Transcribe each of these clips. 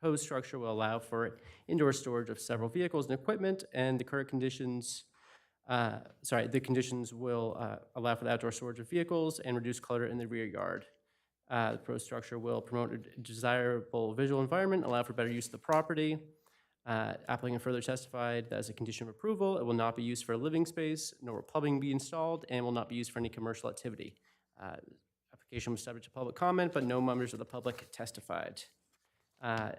proposed structure will allow for indoor storage of several vehicles and equipment, and the current conditions, uh, sorry, the conditions will uh, allow for the outdoor storage of vehicles and reduce clutter in the rear yard. Uh, The proposed structure will promote a desirable visual environment, allow for better use of the property. Uh, Applicant further testified that as a condition of approval, it will not be used for a living space, nor will plumbing be installed, and will not be used for any commercial activity. Uh, Application was subject to public comment, but no members of the public testified. Uh,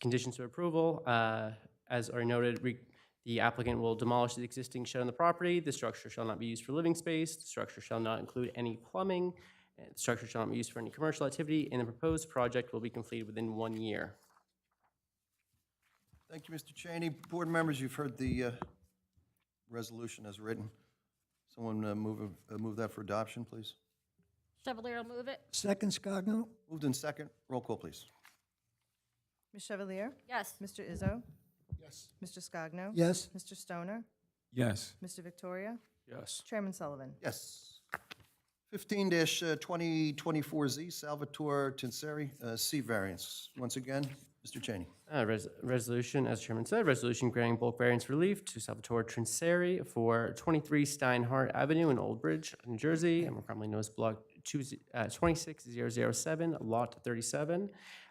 Conditions of approval, uh, as are noted, re- the applicant will demolish the existing shed on the property. The structure shall not be used for living space. The structure shall not include any plumbing. and The structure shall not be used for any commercial activity, and the proposed project will be completed within one year. Thank you, Mr. Cheney. Board members, you've heard the uh, resolution as written. Someone uh, move, uh, move that for adoption, please. Chevalier will move it. Second Scogno? Moved in second. Roll call, please. Ms. Chevalier? Yes. Mr. Izzo? Yes. Mr. Scogno? Yes. Mr. Stoner? yes, Mr. Victoria? yes, Chairman Sullivan? Yes. Fifteen uh, twenty twenty-four Z, Salvatore Tinseri, uh, C variance. Once again, Mr. Cheney. Uh, res- Resolution, as Chairman said, resolution granting bulk variance relief to Salvatore Trinseri for 23 Steinhardt Avenue in Old Bridge, New Jersey, and commonly known as Block 2 z- uh, 26007, Lot 37.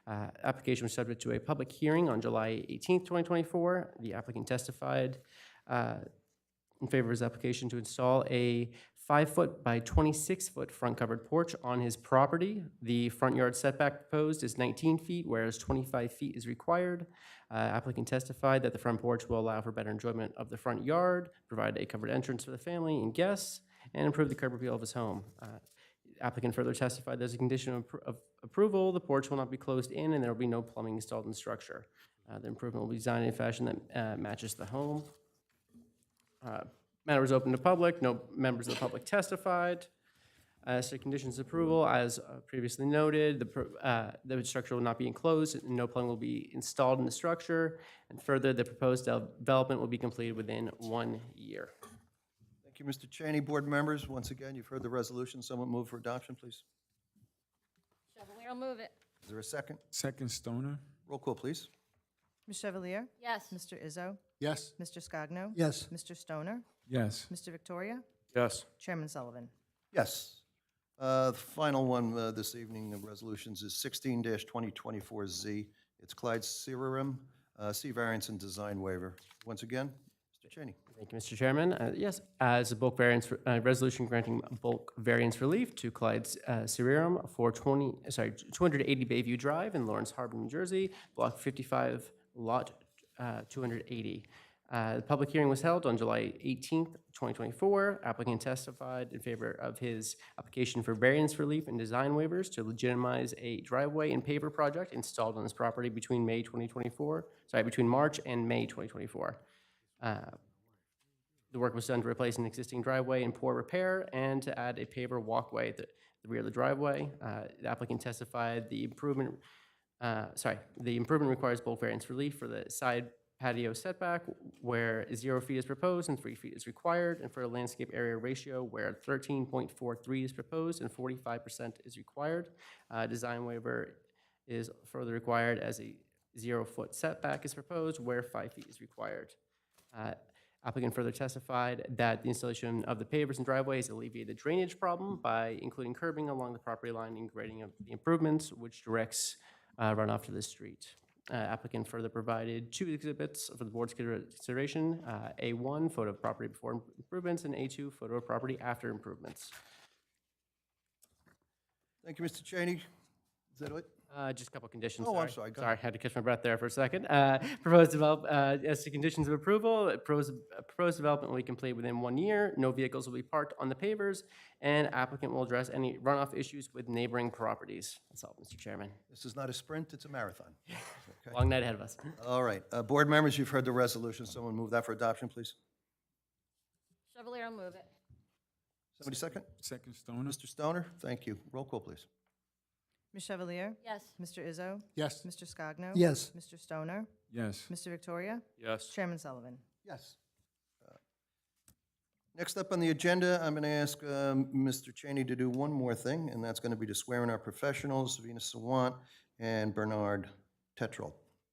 Uh, Application was subject to a public hearing on July 18th, 2024. The applicant testified uh, in favor of his application to install a five-foot by twenty-six-foot front-covered porch on his property. The front yard setback proposed is nineteen feet, whereas twenty-five feet is required. Uh, Applicant testified that the front porch will allow for better enjoyment of the front yard, provide a covered entrance for the family and guests, and improve the curb appeal of his home. Uh, Applicant further testified there's a condition of appro- of approval, the porch will not be closed in, and there will be no plumbing installed in the structure. Uh, The improvement will be designed in a fashion that uh, matches the home. Uh, Matter was open to public, no members of the public testified. As to conditions of approval, as uh, previously noted, the, pro- uh, the structure will not be enclosed, and no plumbing will be installed in the structure. And further, the proposed del- development will be completed within one year. Thank you, Mr. Cheney. Board members, once again, you've heard the resolution. Someone move for adoption, please. Chevalier will move it. Is there a second? second Stoner, Roll call, please. Ms. Chevalier? Yes. Mr. Izzo? yes, Mr. Scogno? Yes. Mr. Stoner? yes, Mr. Victoria? yes, Chairman Sullivan? Yes. Uh, The final one uh, this evening, the resolutions is sixteen twenty twenty-four Z. It's Clyde Serum, uh, C variance and design waiver. Once again, Mr. Cheney. Thank you, Mr. Chairman. Uh, Yes, as a bulk variance, uh, resolution granting bulk variance relief to Clyde uh, Cerium for 20, sorry, 280 Bayview Drive in Lawrence Harbor, New Jersey, Block 55, Lot uh, 280. Uh, The public hearing was held on July 18th, 2024. Applicant testified in favor of his application for variance relief and design waivers to legitimize a driveway and paver project installed on his property between May 2024, sorry, between March and May 2024. Uh, the work was done to replace an existing driveway in poor repair and to add a paver walkway at the the rear of the driveway. Uh, The applicant testified the improvement, uh, sorry, the improvement requires bulk variance relief for the side patio setback where zero feet is proposed and three feet is required, and for a landscape area ratio where 13.43 is proposed and 45% is required. Uh, Design waiver is further required as a zero-foot setback is proposed where five feet is required. Uh, Applicant further testified that the installation of the pavers and driveways alleviated the drainage problem by including curbing along the property line and grading of the improvements, which directs uh, runoff to the street. Uh, Applicant further provided two exhibits for the board's consider- consideration, uh, A1, photo of property before im- improvements, and A2, photo of property after improvements. Thank you, Mr. Cheney. Is that it? Uh, Just a couple conditions, Oh, sorry. I'm sorry, go Sorry, had to catch my breath there for a second. Uh, Proposed develop, uh, as to conditions of approval, uh, proposed uh, proposed development will be completed within one year. No vehicles will be parked on the pavers, and applicant will address any runoff issues with neighboring properties. That's all, Mr. Chairman. This is not a sprint, it's a marathon. Long night ahead of us. All right, uh, board members, you've heard the resolution. Someone move that for adoption, please. Chevalier will move it. Somebody second? second Stoner, Mr. Stoner, thank you. Roll call, please. Ms. Chevalier? Yes. Mr. Izzo? yes, Mr. Scogno? Yes. Mr. Stoner? yes, Mr. Victoria? yes, Chairman Sullivan? Yes. Uh, Next up on the agenda, I'm going to ask um, Mr. Cheney to do one more thing, and that's going to be to swear in our professionals, Venus Sawant and Bernard Tetral.